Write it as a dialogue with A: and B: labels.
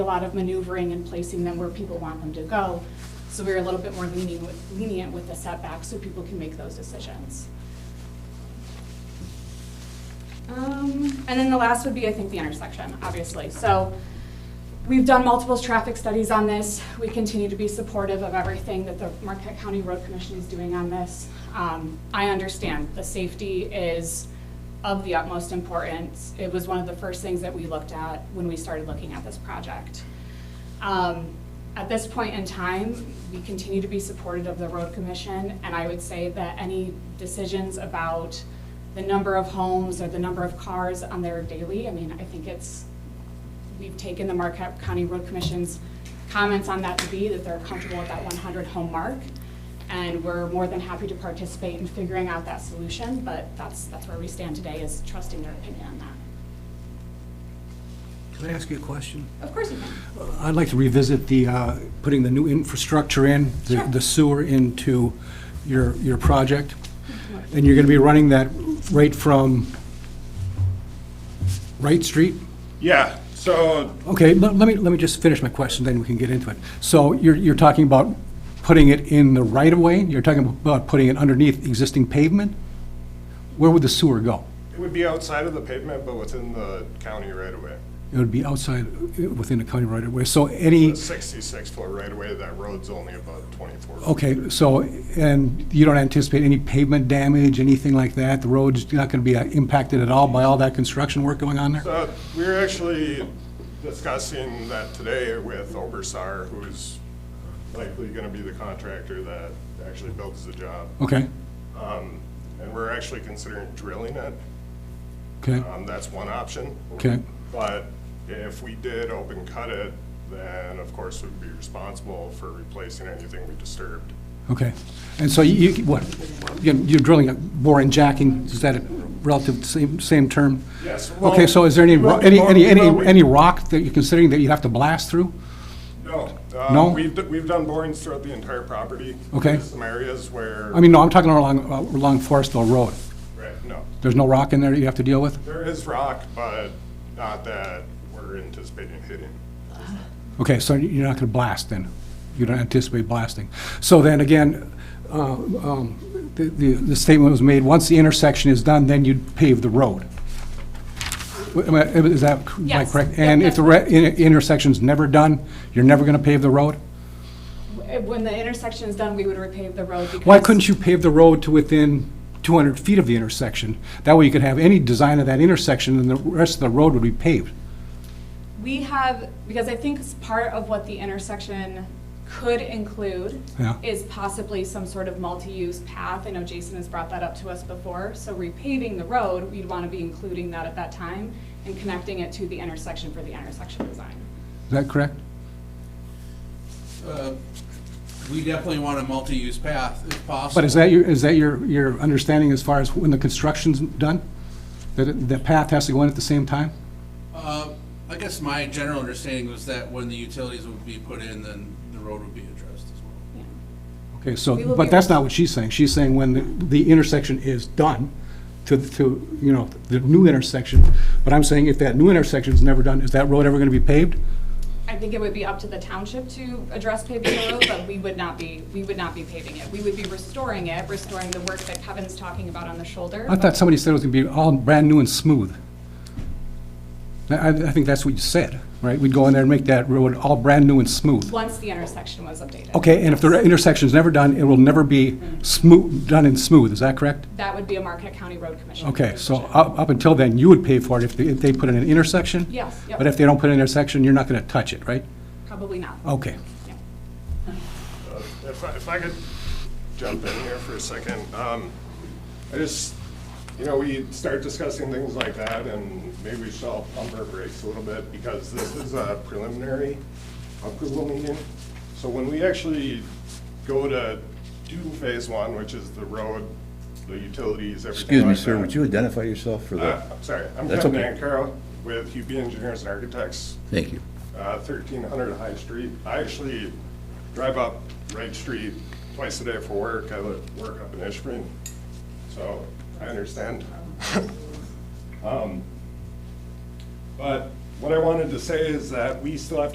A: a lot of maneuvering and placing them where people want them to go. So we're a little bit more lenient, with- lenient with the setbacks so people can make those decisions. Um, and then the last would be, I think, the intersection, obviously. So we've done multiple traffic studies on this. We continue to be supportive of everything that the Marquette County Road Commission is doing on this. Um, I understand the safety is of the utmost importance. It was one of the first things that we looked at when we started looking at this project. Um, At this point in time, we continue to be supportive of the road commission, and I would say that any decisions about the number of homes or the number of cars on their daily, I mean, I think it's, we've taken the Marquette County Road Commission's comments on that to be that they're comfortable with that 100 home mark, and we're more than happy to participate in figuring out that solution, but that's, that's where we stand today, is trusting their opinion on that.
B: Can I ask you a question?
A: Of course you can.
B: I'd like to revisit the, uh, putting the new infrastructure in, the-
A: Sure.
B: the sewer into your, your project. And you're going to be running that right from Wright Street?
C: Yeah, so,
B: Okay, let let me, let me just finish my question, then we can get into it. So you're, you're talking about putting it in the right-of-way? You're talking about putting it underneath existing pavement? Where would the sewer go?
C: it would be outside of the pavement, but within the county right away.
B: It would be outside, uh, within the county right-of-way, so any...
C: The sixty-six foot right away, that road's only about twenty-four. feet.
B: Okay, so, and you don't anticipate any pavement damage, anything like that? The road's not going to be uh, impacted at all by all that construction work going on there?
C: Uh, we were actually discussing that today with Obersar, who's likely gonna be the contractor that actually builds the job.
B: Okay,
C: Um, and we're actually considering drilling it.
B: okay,
C: Um, that's one option.
B: Okay.
C: But if we did open cut it, then of course we'd be responsible for replacing anything we disturbed.
B: okay. And so you, you- what, you're you're drilling, a bore and jacking, is that a relative, same, same term?
C: Yes, well-
B: Okay, so is there any, ro-
C: Well,
B: any, any, any
C: well, we-
B: any rock that you're considering that you'd have to blast through?
C: No. uh,
B: No?
C: We've, d- we've done borings throughout the entire property.
B: Okay.
C: There's Some areas where.
B: I mean, no, I'm talking along, uh, along Forestville Road.
C: Right, no.
B: There's no rock in there that you have to deal with?
C: There is rock, but not that we're anticipating hitting.
B: Okay, so you're not going to blast then? You don't anticipate blasting? So then again, uh, um, the- the the statement was made, once the intersection is done, then you'd pave the road. Am I- Is that am I
A: Yes.
B: correct? And if the re- in- intersection's never done, you're never going to pave the road?
A: When the intersection is done, we would repave the road because.
B: Why couldn't you pave the road to within 200 feet of the intersection? That way you could have any design of that intersection and the rest of the road would be paved.
A: We have, because I think it's part of what the intersection could include
B: Yeah.
A: is possibly some sort of multi-use path. I know Jason has brought that up to us before. So repaving the road, we'd want to be including that at that time and connecting it to the intersection for the intersection design.
B: Is that correct?
D: Uh, We definitely want a multi-use path if possible.
B: But is that your, is that your, your understanding as far as when the construction's done? That it- the path has to go in at the same time?
D: Uh, I guess my general understanding was that when the utilities would be put in, then the road would be addressed as well.
A: Yeah.
B: Okay,
A: We
B: so,
A: will
B: but
A: be-
B: that's not what she's saying. She's saying when the- the intersection is done to, to, you know, the new intersection. But I'm saying if that new intersection's never done, is that road ever gonna be paved?
A: I think it would be up to the township to address paving the road, but we would not be, we would not be paving it. We would be restoring it, restoring the work that Kevin's talking about on the shoulder.
B: I thought somebody said it was gonna be all brand new and smooth. I, I I think that's what you said, right? We'd go in there and make that road all brand new and smooth.
A: Once the intersection was updated.
B: Okay, and if the intersection's never done, it will never be smooth, done and smooth, is that correct?
A: That would be a Marquette County Road Commission.
B: Okay, so up, up until then, you would pay for it if they, if they put in an intersection?
A: Yes, yep.
B: But if they don't put an intersection, you're not gonna touch it, right?
A: Probably not.
B: Okay.
A: Yeah.
C: Uh, If I, if I could jump in here for a second, um, I just, you know, we start discussing things like that and maybe we should all pump our brakes a little bit because this is a preliminary approval meeting. So when we actually go to do phase one, which is the road, the utilities, everything
E: Excuse me,
C: like
E: sir,
C: that-
E: would you identify yourself for
C: Uh,
E: the,
C: I'm sorry, I'm
E: That's
C: Kevin
E: okay.
C: Ancaro with UP Engineers and Architects,
E: thank you.
C: uh, 1300 High Street. I actually drive up Wright Street twice a day for work. I live, work up in Ishpeming, so I understand. Um, But what I wanted to say is that we still have